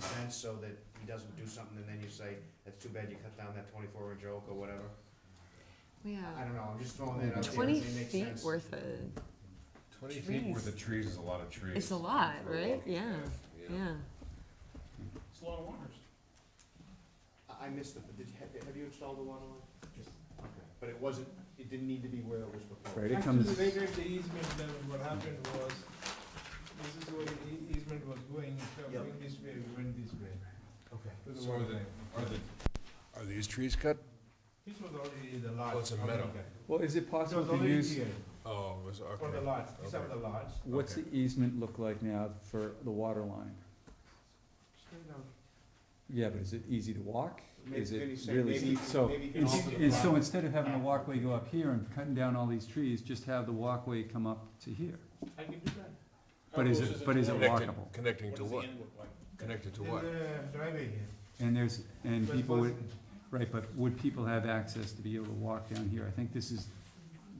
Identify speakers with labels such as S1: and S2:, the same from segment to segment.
S1: fence so that he doesn't do something, and then you say, that's too bad you cut down that twenty-four inch oak or whatever? I
S2: Yeah,
S1: don't know, I'm just throwing that out there,
S2: twenty
S1: it makes
S2: feet
S1: sense.
S2: worth of,
S3: Twenty feet worth of
S2: Trees.
S3: trees is a lot of trees.
S2: It's a lot,
S3: for a
S2: right?
S3: walking
S2: Yeah,
S3: path,
S2: yeah.
S4: It's a lot of wonders.
S1: I, I missed it, but did, have, have you installed the water line? Okay, But it wasn't, it didn't need to be where it was
S5: Right,
S1: proposed.
S5: it
S4: Actually,
S5: comes,
S4: they did the easement, then what happened was, this is where the ea- easement was going, so
S1: Yep.
S4: going this way, we went this way.
S1: Okay.
S4: to the
S3: So
S4: water
S3: the-
S4: line.
S3: Are the, are these trees cut?
S4: This was already the lot.
S3: Oh, it's a
S4: already
S3: meadow.
S4: there.
S5: well, is it
S4: It
S5: possible
S4: was
S5: to
S4: already
S5: use,
S4: here,
S3: Oh, it was,
S4: for the
S3: okay.
S4: lots, these are
S3: Okay.
S4: the lots.
S5: what's the easement look like now for the water line? Yeah, but is it easy to walk?
S1: Maybe-
S5: Is
S1: maybe
S5: it
S1: say- maybe you
S5: really,
S1: can-
S5: so,
S1: maybe you can
S5: and
S1: alter the
S5: and so
S1: plan.
S5: instead of having a walkway go up here and cutting down all these trees, just have the walkway come up to here.
S4: I can do that.
S5: But is it, but is it
S3: Connected,
S5: walkable?
S3: connecting to what? Connected to what?
S4: There's a driveway here.
S5: And there's, and
S4: But
S5: people would,
S4: Pleasant-
S5: right, but would people have access to be able to walk down here? I think this is,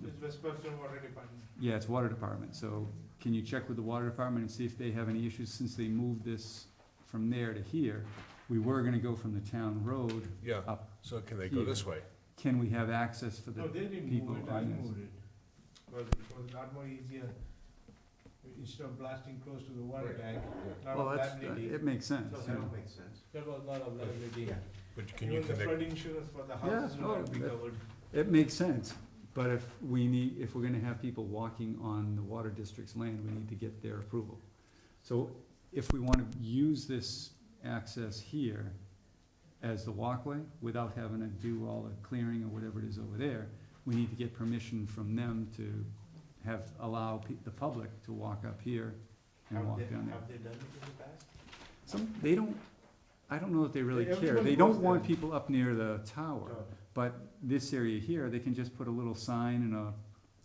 S4: This West Boston Water Department.
S5: yeah, it's water department, so can you check with the water department and see if they have any issues since they moved this from there to here? We were gonna go from the town road
S3: Yeah,
S5: up.
S3: so can they go this way?
S5: Can we have access for
S4: No,
S5: the,
S4: they didn't
S5: people
S4: move it, I
S5: on this.
S4: moved it. Because it was a lot more easier, instead of blasting close to the water
S3: Right.
S4: tank, lot
S5: well,
S4: of
S5: that's,
S4: liability.
S5: it makes sense,
S1: No,
S5: yeah.
S1: that don't make sense.
S4: There was a lot of liability.
S3: But can you
S4: Even the flood
S3: connect,
S4: insurance for the
S5: Yeah,
S4: houses will
S5: no,
S4: not be
S5: that-
S4: covered.
S5: It makes sense, but if we need, if we're gonna have people walking on the water district's land, we need to get their approval. So if we wanna use this access here as the walkway, without having to do all the clearing or whatever it is over there, we need to get permission from them to have, allow pe- the public to walk up here and
S4: Have
S5: walk
S4: they,
S5: down there.
S4: have they done it in the past?
S5: Some, they don't, I don't know if they really
S4: They-
S5: care,
S4: everybody
S5: they don't
S4: goes
S5: want
S4: there.
S5: people up near the tower.
S4: No.
S5: But this area here, they can just put a little sign and a,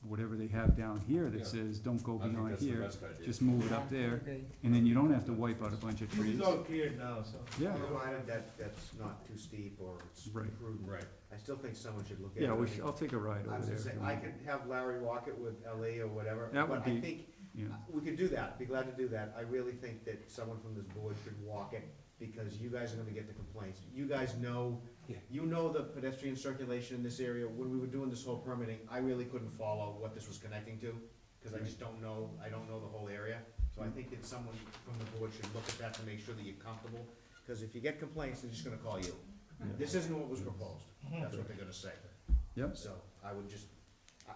S5: whatever they have down here
S3: Yeah.
S5: that says, don't go
S3: I think
S5: beyond
S3: that's the
S5: here.
S3: best idea.
S5: Just move it up there, and then you don't have to wipe out a bunch of
S4: This
S5: trees.
S4: is all cleared now, so.
S5: Yeah.
S1: Provided that, that's not too steep or it's
S5: Right.
S1: prudent.
S3: Right.
S1: I still think someone should look at it.
S5: Yeah, we
S1: I
S5: should,
S1: mean,
S5: I'll take a ride
S1: I
S5: over
S1: was
S5: there.
S1: gonna say,
S5: if you
S1: I
S5: want.
S1: could have Larry walk it with LE or whatever,
S5: That
S1: but
S5: would
S1: I
S5: be-
S1: think,
S5: Yeah.
S1: uh, we could do that, be glad to do that. I really think that someone from this board should walk it, because you guys are gonna get the complaints. You guys know,
S3: Yeah.
S1: you know the pedestrian circulation in this area. When we were doing this whole permitting, I really couldn't follow what this was connecting to, cause I just don't know, I don't know the whole area. So I think that someone from the board should look at that to make sure that you're comfortable, cause if you get complaints, they're just gonna call you. This isn't what was proposed, that's what they're gonna say.
S5: Yep.
S1: So I would just,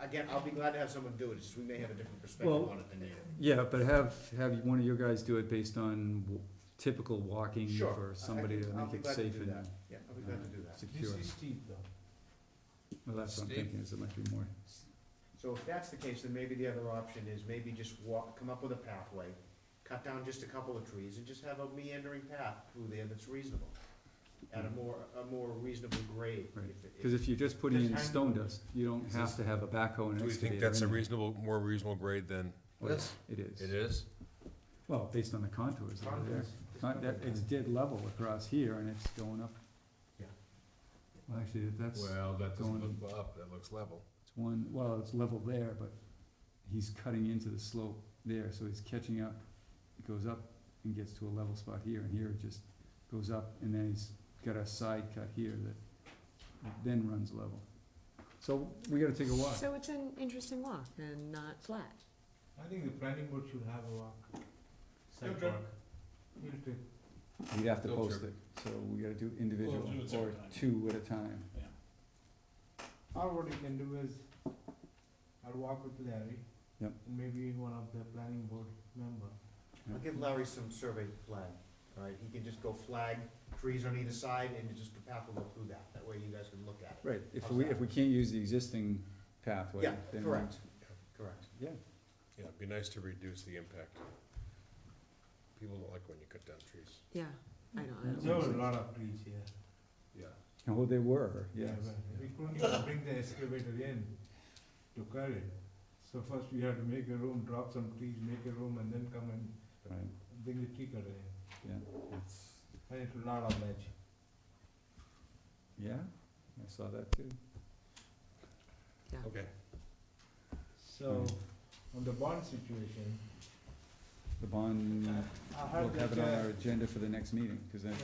S1: again, I'll be glad to have someone do it, just we may have a different perspective
S5: Well-
S1: on it than you.
S5: Yeah, but have, have one of your guys do it based on w- typical walking
S1: Sure, I- I
S5: for somebody to
S1: can- I'll
S5: make
S1: be
S5: it
S1: glad to
S5: safe
S1: do
S5: and
S1: that. Yeah, I'll be glad to do that.
S4: This
S5: secure.
S4: is steep though.
S5: Well, that's what I'm
S3: Steve?
S5: thinking, is it might be more,
S1: So if that's the case, then maybe the other option is maybe just walk, come up with a pathway, cut down just a couple of trees and just have a meandering path through there that's reasonable. At a more, a more reasonable grade.
S5: Mm-hmm. Right.
S1: if it-
S5: cause if you're just putting
S4: Just
S5: in
S4: hang-
S5: stone dust, you don't
S3: Is
S5: have
S3: this-
S5: to have a backhoe and excavator.
S3: Do we think that's a
S5: in there.
S3: reasonable, more reasonable grade than
S5: Well,
S3: this?
S5: It is.
S3: It is?
S5: Well, based on the contours that are there. Not that, it's dead level across here and it's going up.
S1: Yeah.
S5: Well, actually, that's, it's
S3: Well, that
S5: Going-
S3: doesn't look up, that looks level.
S5: one, well, it's level there, but he's cutting into the slope there, so he's catching up. It goes up and gets to a level spot here, and here it just goes up, and then he's got a side cut here that then runs level. So we gotta take a walk.
S2: So it's an interesting walk and not flat.
S4: I think the planning board should have a walk. Sidewalk. We'll take-
S5: We'd have to
S3: Field
S5: post
S3: trip.
S5: it, so we gotta do individual
S4: do it
S5: or
S4: separate time.
S5: two at a time.
S4: Or what you can do is, I'll walk with Larry.
S5: Yep.
S4: And maybe one of the planning board member.
S1: I'll give Larry some survey flag, alright, he can just go flag trees on either side and just the path will go through that, that way you guys can look at it.
S5: Right, if
S1: How's
S5: we,
S1: that?
S5: if we can't use the existing pathway,
S1: Yeah,
S5: then. we-
S1: correct, correct.
S5: Yeah,
S3: Yeah, it'd be nice to reduce the impact. People don't like when you cut down trees.
S2: Yeah, I know. I
S5: Yeah.
S2: don't
S4: There
S2: know.
S4: were a lot of trees here.
S3: Yeah.
S5: oh, they were, yes.
S4: Yeah, but We couldn't even bring the excavator in to cut it. So first we had to make a room, drop some trees, make a room, and then come and
S5: Right,
S4: bring the tree cutter in.
S5: yeah, it's,
S4: And it's a lot of ledge.
S5: yeah, I saw that too.
S3: Okay.
S4: So,
S5: Mm.
S4: on the bond situation,
S5: The bond,
S4: I
S5: we'll
S4: heard
S5: have
S4: that,
S5: it on
S4: uh,
S5: our agenda for the next meeting, cause then